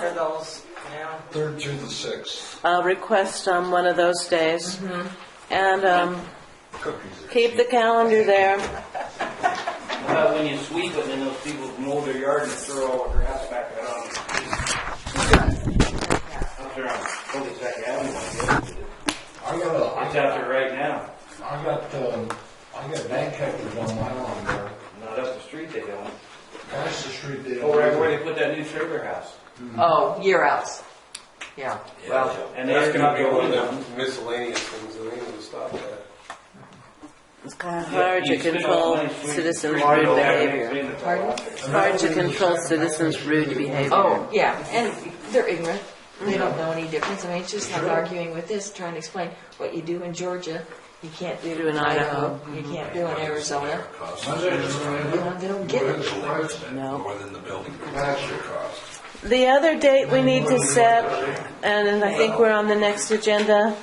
for those now. Third through the sixth. uh, request on one of those days. Mm-hmm. And um, Cookies. are keep the calendar there. But when you sweep it, then those people mow their yard and throw all the grass back out on it. Up there on Cul-de-sac Avenue, I guess. cheap. I got a, I It's got, out there right now. I got, um, I got bank hectares on my lawn there. Not up the street they don't. That's the street they. Over right where they put that new trailer house. Oh, year outs. Yeah. Well. And That's they're gonna not be one going of down. the miscellaneous things, that ain't gonna stop that. It's kind of hard to control citizens' rude behavior. Pardon? It's hard to control citizens' rude behavior. Oh, yeah, and they're ignorant. They don't know any difference. I mean, it's just like arguing with this, trying to explain what you do in Georgia, you can't do in Idaho, you can't do in Arizona. You know, Mm-hmm. they don't get it. No. More than the building. That's your cost. The other date we need to set, and I think we're on the next agenda,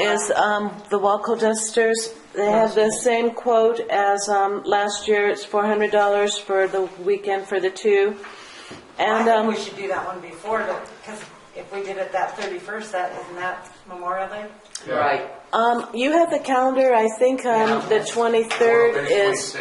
is um, the Waco Dusters. They have the same quote as um, last year, it's $400 for the weekend for the two. I And, think um, we should do that one before, because if we did it that thirty-first, that, isn't that Memorial Day? Right. um, you have the calendar, I think um, the 23rd is,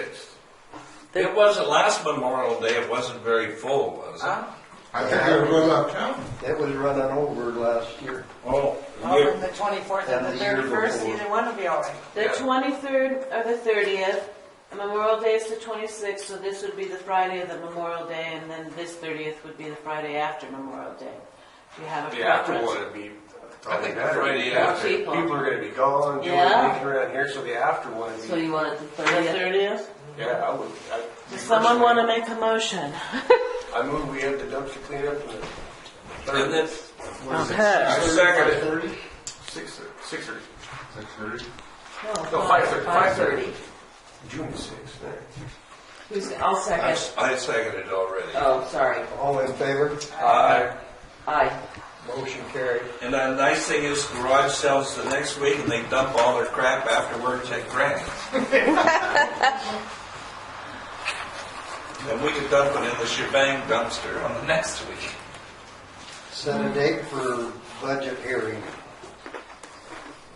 It wasn't last Memorial Day, it wasn't very full, was it? Huh? I think I run out of town. It was running over last year. Oh, Well, then the twenty-fourth and Yeah, the the year thirty-first, before. either one will be all right. the 23rd or the 30th. Memorial Day is the 26th, so this would be the Friday of the Memorial Day, and then this 30th would be the Friday after Memorial Day. Do you have a The preference? after After one, it'd be I probably think better. Friday Yeah. after. People. People are gonna be gone, doing Yeah. things around here, so the after one would So be, you want it the The 30th? 30th? yeah, I would. I- Does someone want to make a motion? I move we have the dumpster cleanup and the And then, Okay. second it. Thirty? six, six thirty, Six thirty? no, five thirty, five thirty. June sixth, there. Who's, I'll I second. I seconded it already. Oh, sorry. All in favor? Aye. Aye. Motion carried. And the nice thing is garage sells the next week and they dump all their crap afterwards at Grant. And we could dump it in the shebang dumpster on the next week. Set a date for budget hearing.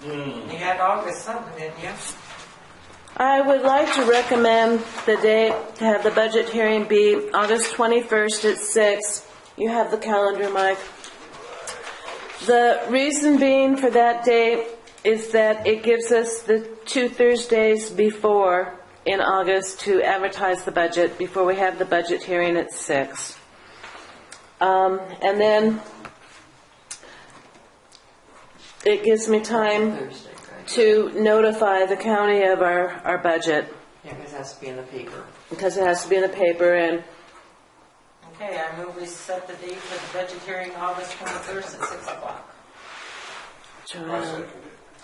You had August something, didn't you? I would like to recommend the date to have the budget hearing be August 21st at 6. You have the calendar, Mike. The reason being for that date is that it gives us the two Thursdays before in August to advertise the budget before we have the budget hearing at 6. Um, And then it gives me time Thursday, right? to notify the county of our, our budget, Yeah, because it has to be in the paper. because it has to be in the paper, and Okay, I move we set the date for the budget hearing August twenty-first at six o'clock. Joanne,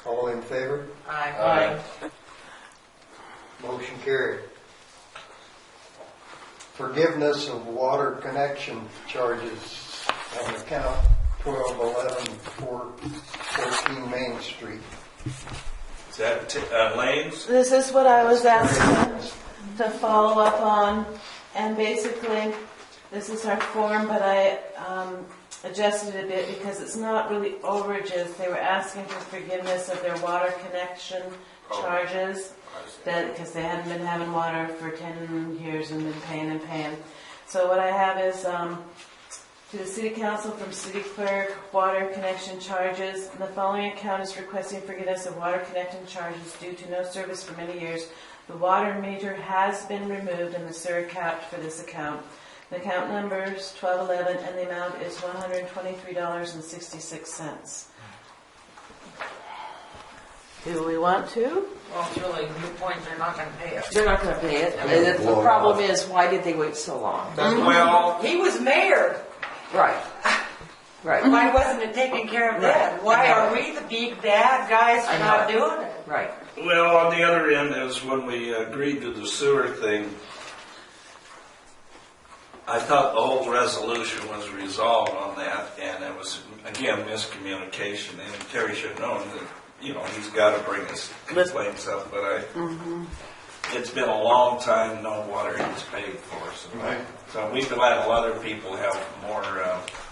All in favor? Aye. Motion carried. Forgiveness of water connection charges on account twelve eleven four fourteen Main Street. Is that t- uh, Lane's? this is what I was asked to- to follow up on, and basically, this is our form, but I um, adjusted it a bit because it's not really overages. They were asking for forgiveness of their water connection charges, that, because they hadn't been having water for 10 years and been paying and paying. So what I have is, um, To the City Council from City Clerk, water connection charges. And the following account is requesting forgiveness of water connection charges due to no service for many years. The water meter has been removed and the sewer capped for this account. The account number is 1211 and the amount is $123.66. Do we want to? Well, it's really, new point, they're not gonna pay us. They're not gonna pay it. And the- the problem is, why did they wait so long? Well, He was mayor, Right. Right, why wasn't it taking care of that? Why are we the big bad guys I for know. not doing it? right. well, on the other end is when we agreed to the sewer thing. I thought the whole resolution was resolved on that and it was, again, miscommunication and Terry should have known that, you know, he's gotta bring his complaints up, but I, it's been a long time, no water is paid for, so. So we've let a lot of people have more, uh,